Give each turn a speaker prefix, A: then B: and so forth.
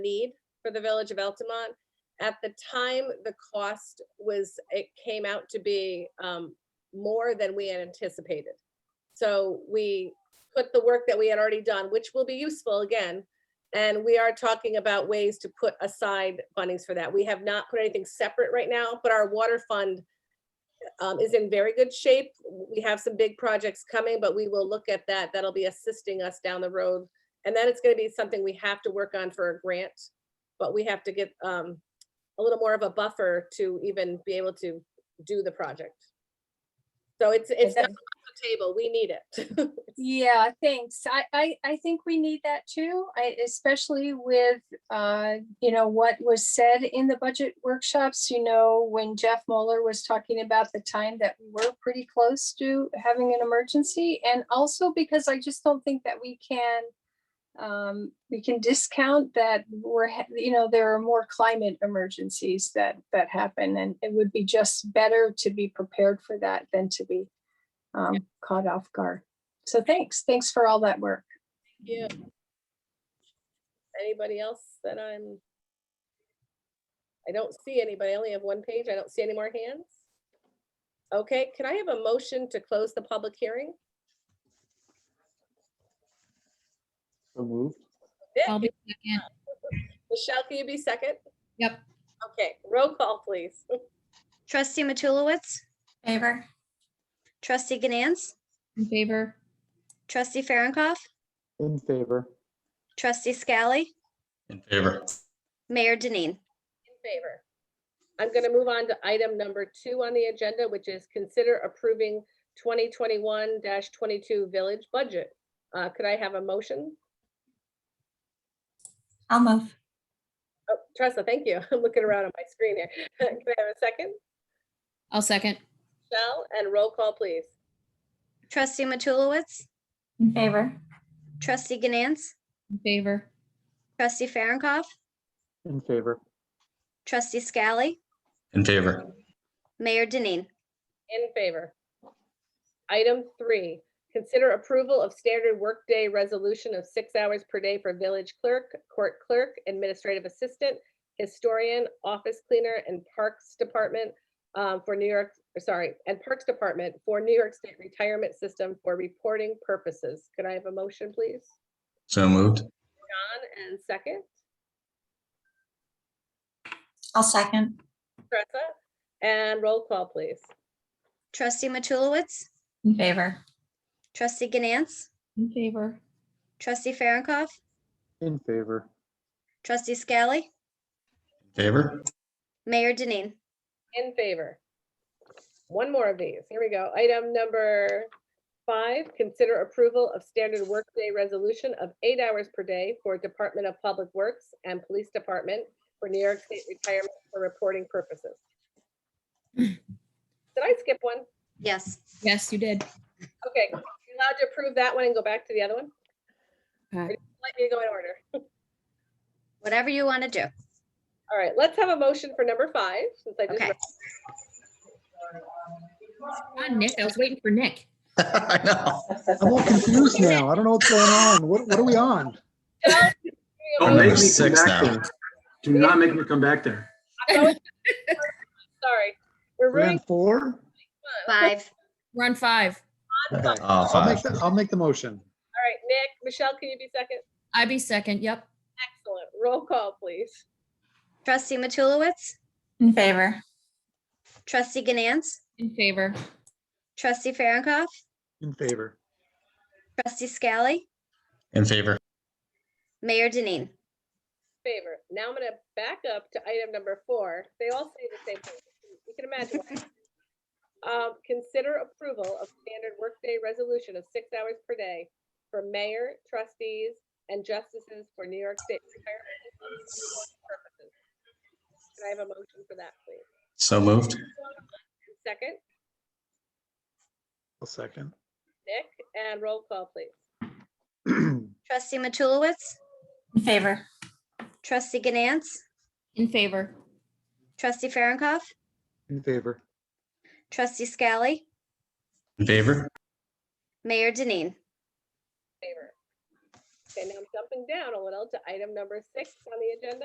A: need for the Village of Altamont. At the time, the cost was, it came out to be um, more than we had anticipated. So we put the work that we had already done, which will be useful again. And we are talking about ways to put aside fundings for that. We have not put anything separate right now, but our water fund um, is in very good shape. We have some big projects coming, but we will look at that. That'll be assisting us down the road and then it's gonna be something we have to work on for a grant, but we have to get um a little more of a buffer to even be able to do the project. So it's it's
B: that-
A: not on the table, we need it.
B: Yeah, thanks. I, I, I think we need that too, I, especially with, uh, you know, what was said in the budget workshops. You know, when Jeff Moeller was talking about the time that we were pretty close to having an emergency. And also because I just don't think that we can, um, we can discount that we're, ha- you know, there are more climate emergencies that, that happen. And it would be just better to be prepared for that than to be, um, caught off guard. So thanks, thanks for all that work.
A: Yeah. Anybody else that I'm? I don't see anybody, I only have one page, I don't see any more hands. Okay, can I have a motion to close the public hearing?
C: So moved.
D: I'll
A: Nick,
D: be second.
A: Michelle, can you be second?
D: Yep.
A: Okay, roll call, please.
E: Trustee Matulowicz,
F: Favor,
E: trustee Ganance,
D: In favor?
E: trustee Farronkov,
C: In favor.
E: trustee Scally,
G: In favor.
E: Mayor Denine.
A: in favor. I'm going to move on to item number two on the agenda, which is consider approving 2021-22 village budget. Uh, Could I have a motion?
F: I'll move.
A: Oh, Tressa, thank you. I'm looking around on my screen here. Can I have a second?
D: I'll second.
A: Michelle, and roll call, please.
E: Trustee Matulowicz,
F: In favor,
E: trustee Ganance,
D: In favor?
E: trustee Farronkov,
C: In favor.
E: trustee Scally,
G: In favor.
E: Mayor Denine.
A: In favor. Item three, consider approval of standard workday resolution of six hours per day for village clerk, court clerk, administrative assistant, historian, office cleaner, and parks department um, for New York, sorry, and Parks Department for New York State Retirement System for reporting purposes. Could I have a motion, please?
G: So moved.
A: John, and second,
F: I'll second.
A: Tressa, and roll call, please.
E: Trustee Matulowicz,
F: In favor,
E: trustee Ganance,
D: In favor?
E: trustee Farronkov,
C: In favor.
E: trustee Scally,
G: In Favor.
E: Mayor Denine.
A: In favor. One more of these. Here we go. Item number five, consider approval of standard workday resolution of eight hours per day for Department of Public Works and Police Department for New York State retirement for reporting purposes. Did I skip one?
E: Yes.
D: Yes, you did.
A: Okay, you allowed to approve that one and go back to the other one? Or
D: Uh.
A: do you Let me go in order.
E: Whatever you want to do.
A: All right, let's have a motion for number five, since I just
E: Okay.
A: read
D: On Nick, I was waiting for Nick.
G: I know.
C: I'm all confused now. I don't know what's going on. What, what are we on?
H: Don't
G: Number
H: make me come
G: six
H: back
G: now.
H: there. Do not make me come back there.
A: Sorry. We're
C: We're on
A: ruining
C: four?
E: Five.
D: We're on five.
A: fun. All
G: Oh,
C: I'll make,
G: five.
C: the- I'll make the motion.
A: right, Nick, Michelle, can you be second?
D: I be second. Yep.
A: Excellent. Roll call, please.
E: Trustee Matulowicz,
F: in favor,
E: trustee Ganance,
D: In favor?
E: trustee Farronkov,
C: In favor.
E: trustee Scally,
G: In favor.
E: Mayor Denine.
A: Favor. Now I'm gonna back up to item number four. They all say the same thing. You can imagine. why. Um, consider approval of standard workday resolution of six hours per day for mayor, trustees, and justices for New York State retirement purposes. Can I have a motion for that, please?
G: So moved.
A: Second,
C: I'll second.
A: Nick, and roll call, please.
C: In
E: Trustee Matulowicz,
F: in favor,
E: trustee Ganance,
D: In favor?
E: trustee Farronkov,
C: favor.
E: trustee Scally,
G: In favor.
E: Mayor Denine.
A: Favor. Okay, now I'm jumping down a little to item number six on the agenda.